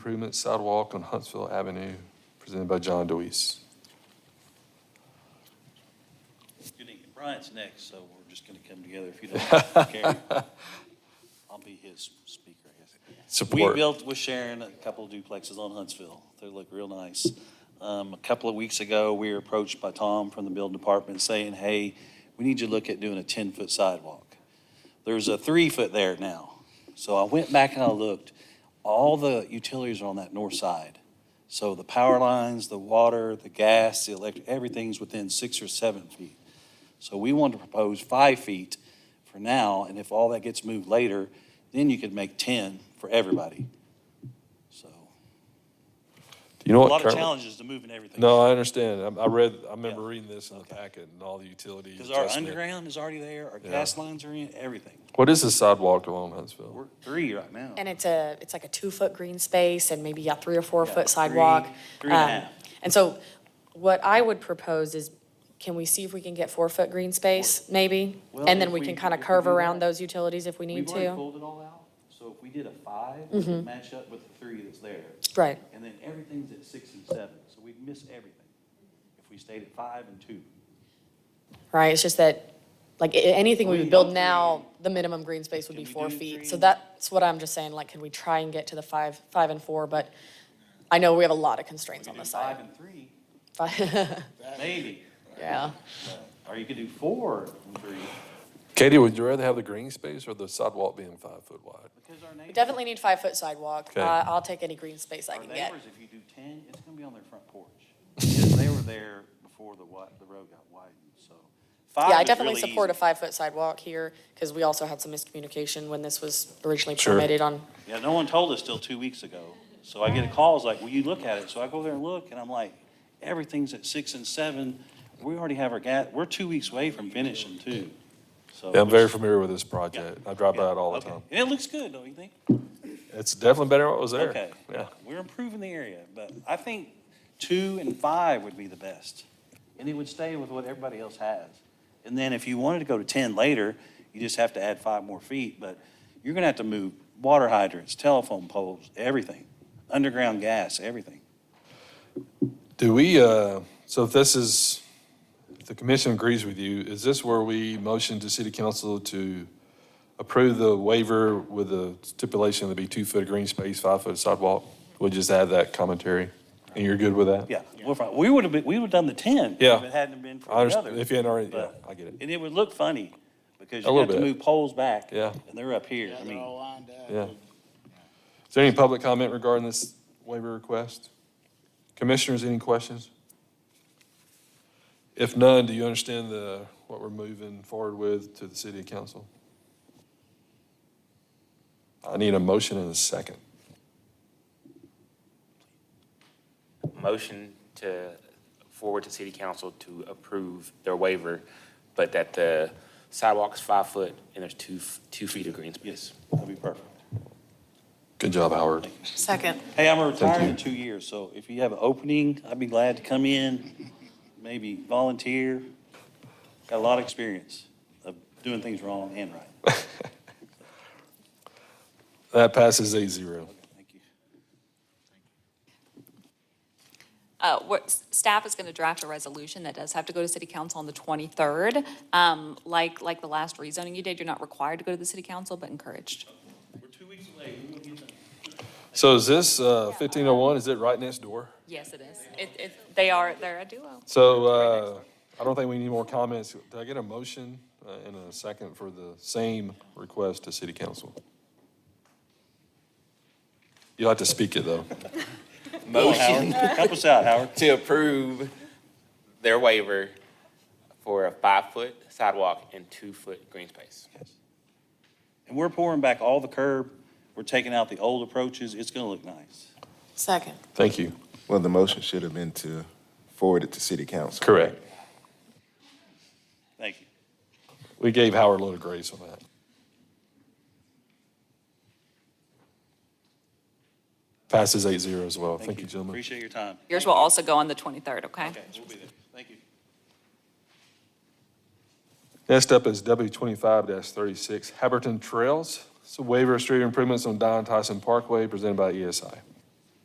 Improvement sidewalk on Huntsville Avenue, presented by John Deweese. Good evening. Bryant's next, so we're just going to come together if you don't care. I'll be his speaker, I guess. We Support. built with Sharon a couple of duplexes on Huntsville. They look real nice. Um, a couple of weeks ago, we were approached by Tom from the building department saying, hey, we need you to look at doing a ten-foot sidewalk. There's a three-foot there now. So I went back and I looked. All the utilities are on that north side. So the power lines, the water, the gas, the electric, everything's within six or seven feet. So we want to propose five feet for now, and if all that gets moved later, then you could make 10 for everybody. So, Do you know a what? lot of currently- challenges to moving everything. No, I understand. I, I read, I remember Yeah. reading this in the Okay. packet and all the utility Because our adjustment. underground is already there, our Yeah. gas lines are in, everything. What is the sidewalk along Huntsville? We're three right now. And it's a, it's like a two-foot green space and maybe a three or Yeah, four-foot three- sidewalk. Three and a Um, half. And so what I would propose is, can we see if we can get four-foot green space, maybe? Well, And then if we we- can if kind of we curve do that- around those utilities if we need We've already to. Mm-hmm. pulled it all out, so if we did a five, it would match up with the three that's there. Right, And then everything's at six and seven, so we'd miss everything if we stayed at five and two. right, it's just that, like, i- anything we We would build don't now, really- the minimum green space would Can be we four do feet. So three? that's what I'm just saying, like, can we try and get to the five, five and four? But I know we have a lot of We constraints on could do the five side. and three, Five- maybe, Yeah. or you could do four and three. Katie, would you rather have the green space or the sidewalk being five foot wide? Because our We neighbors, Definitely need five-foot sidewalk. Okay. I- I'll take any green space I our can get. neighbors, if you do ten, it's gonna be on their front porch. Because They were there before the wi- the road got widened, so. Yeah, I definitely support a five-foot sidewalk here, because we also had some miscommunication when this was originally Sure. permitted on, Yeah, no one told us till two weeks ago. So I get calls like, will you look at it? So I go there and look, and I'm like, everything's at six and seven. We already have our gas, we're two weeks away from finishing too, so. Yeah, I'm very familiar with this project. I drive by it all the Okay. time. And it looks good, don't you think? It's definitely better than what was there. Okay. Yeah. We're improving the area, but I think two and five would be the best. And it would stay with what everybody else has. And then if you wanted to go to ten later, you just have to add five more feet, but you're gonna have to move water hydrants, telephone poles, everything, underground gas, everything. Do we, uh, so if this is, if the commission agrees with you, is this where we motion to city council to approve the waiver with the stipulation that be two-foot green space, five-foot sidewalk? We'll just add that commentary, and you're good with that? Yeah, we're fine. we would have been, we would have done the ten. Yeah. If it hadn't been I for the understand, other. if you hadn't already, yeah, But- I get it, And it would look funny, because A you have little to bit. move poles back. Yeah. And they're up here, Yeah, I they're mean, all lined up. yeah. Is there any public comment regarding this waiver request? Commissioners, any questions? If none, do you understand the, what we're moving forward with to the city council? I need a motion and a second. motion to forward to city council to approve their waiver, but that the sidewalk's five foot and there's two, f- two feet of green space. yes, that'd be perfect. Good job, Howard. second. Hey, I'm retired you. in two years, so if you have an opening, I'd be glad to come in, maybe volunteer. Got a lot of experience of doing things wrong and right. That passes eight zero. Thank you. Uh, What, s- staff is going to draft a resolution that does have to go to city council on the 23rd. Um, Like, like the last rezoning you did, you're not required to go to the city council, but encouraged. We're two weeks away. So is this fifteen oh one, is it right next door? Yes, it is. It, it, they are, they're a duo. So uh, I don't think we need more comments. Do I get a motion uh, and a second for the same request to city council? You'll have to speak it, though. Motion Help us out, Howard. to approve their waiver for a five foot sidewalk and two foot green space. And we're pouring back all the curb. We're taking out the old approaches. It's gonna look nice. Second. Thank you. Well, the motion should have been to forward it to city council. Correct. Thank you. We gave Howard a little grace on that. Passes eight zero as well. Thank you, gentlemen. Appreciate your time. Yours will also go on the 23rd, okay? Okay, we'll be there. Thank you. Next up is W twenty-five thirty-six, Haberton Trails. It's a waiver of street improvements on Don Tyson Parkway presented by E ESI.